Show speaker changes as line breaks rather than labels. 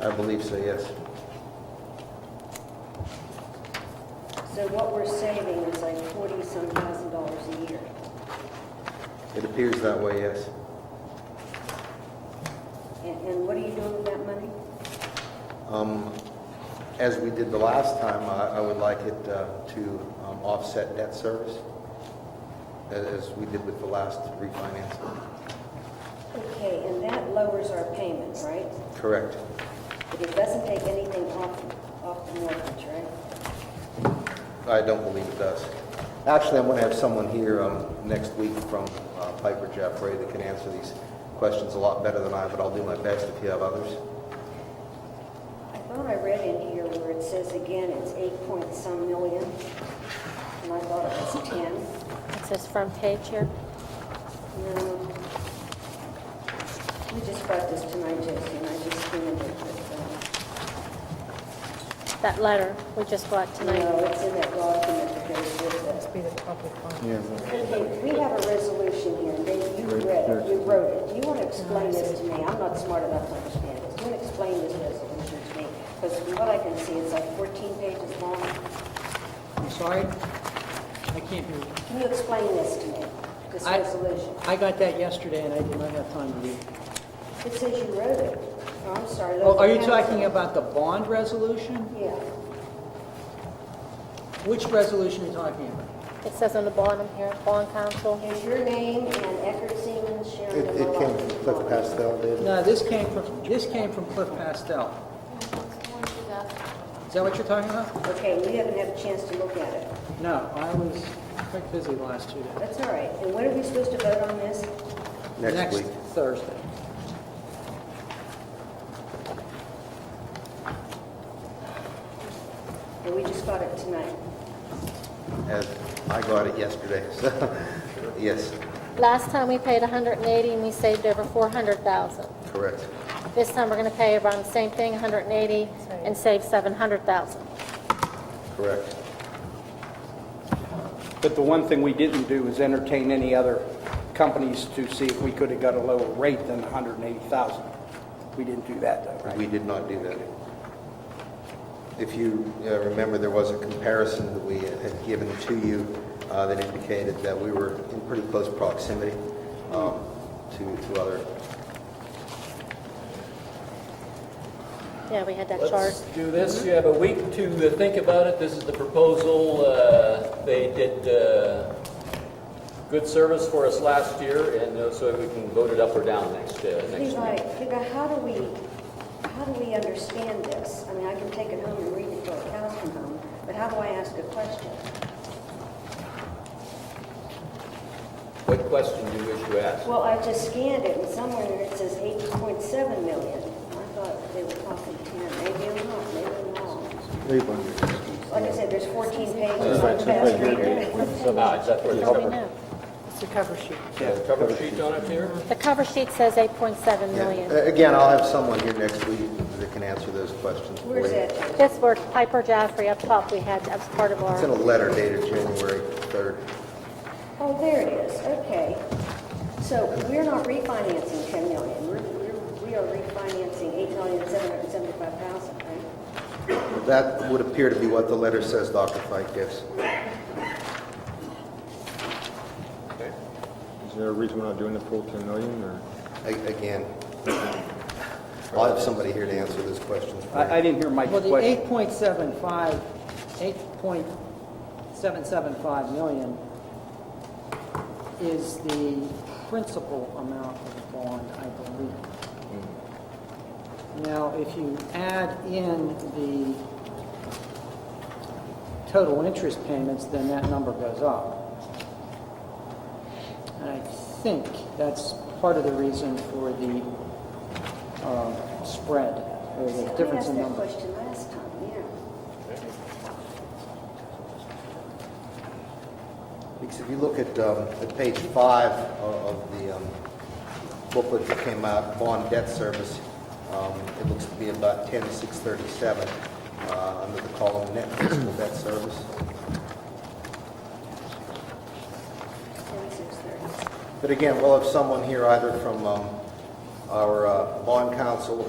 I believe so, yes.
So what we're saving is like forty-some thousand dollars a year.
It appears that way, yes.
And, and what are you doing with that money?
Um, As we did the last time, I I would like it uh, to um, offset debt service, a- as we did with the last refinance.
Okay, and that lowers our payments, right?
Correct.
But it doesn't take anything off, off the mortgage, right?
I don't believe it does. Actually, I'm going to have someone here um, next week from uh, Piper Jaffray that can answer these questions a lot better than I, but I'll do my best if you have others.
I thought I read in here where it says again, it's eight point some million, and I thought it was ten.
It's this front page here.
No. We just brought this to my attention, I just skimmed it, but,
That letter we just bought
uh, no,
tonight.
it's in that document that goes with it.
be the public one.
Yeah,
Okay, we have a resolution here, and Dave, you read it, you wrote it. Do you want to explain this to me? I'm not smart enough to understand this. Do you want to explain this resolution to me? Because from what I can see, it's like 14 pages long.
I'm sorry? I can't hear you.
Can you explain this to me, this
I-
resolution?
I got that yesterday and I did not have time to read. it.
It says you wrote it. Oh, I'm sorry.
Well, are you
Local
talking
Council.
about the bond resolution?
Yeah.
Which resolution are you talking about?
It says on the bottom here, bond council.
Here's your name and Eckert Siemens, Sharon
It
and
it came
Malone.
from Cliff Pastel, did
No, this came from, this came from Cliff Pastel. Is that what you're talking about?
Okay, you haven't had a chance to look at it.
No, I was quite busy the last two days.
That's all right. And when are we supposed to vote on this?
next week.
Thursday.
And we just got it tonight.
As I got it yesterday, so, yes,
Last time we paid 180 and we saved over 400,000.
correct.
This time we're going to pay around the same thing, 180, and save 700,000.
Correct.
But the one thing we didn't do is entertain any other companies to see if we could have got a lower rate than 180,000. We didn't do that, though, right?
We did not do that. If you uh, remember, there was a comparison that we had given to you uh, that indicated that we were in pretty close proximity um, to to other,
Yeah, we had that chart.
Let's do this. You have a week to uh, think about it. This is the proposal. Uh, They did uh, good service for us last year, and uh, so we can vote it up or down next, uh, next
Levi,
week.
Levi, how do we, how do we understand this? I mean, I can take it home and read it till the cows come home, but how do I ask a question?
What question do you wish to ask?
Well, I just scanned it, and somewhere in there it says 8.7 million. I thought they were talking 10, maybe I'm not, maybe I'm wrong.
leave on your-
Like I said, there's 14 pages
That's
on the
right, so it's
fast
like you're-
reader.
with some-
Ah, is that where the
How do we
cover,
know?
It's a cover sheet.
the cover sheet on it here?
The cover sheet says 8.7
Yeah.
million.
Uh, Again, I'll have someone here next week that can answer those questions for you.
Where's that?
This word Piper Jaffrey up top, we had, that was part of
It's in a
our,
letter dated January 3rd.
Oh, there it is, okay. So we're not refinancing 10 million, we're, we're- we are refinancing 8,775,000, right?
That would appear to be what the letter says Dr. Fike gives.
Is there a reason we're not doing the full 10 million, or?
A- Again, I'll have somebody here to answer those questions for you.
I I didn't hear Mike's
Well, the
question.
8.75, 8.775 million is the principal amount of the bond, I believe. Now, if you add in the total interest payments, then that number goes up. And I think that's part of the reason for the um, spread, or the difference in
We asked that
numbers.
question last time, yeah.
Because if you look at, um, at page five o- of the um, booklet that came out, bond debt service, um, it looks to be about ten six thirty-seven, uh, under the column net fiscal debt service.
10,630.
But again, we'll have someone here either from, um, our, uh, bond council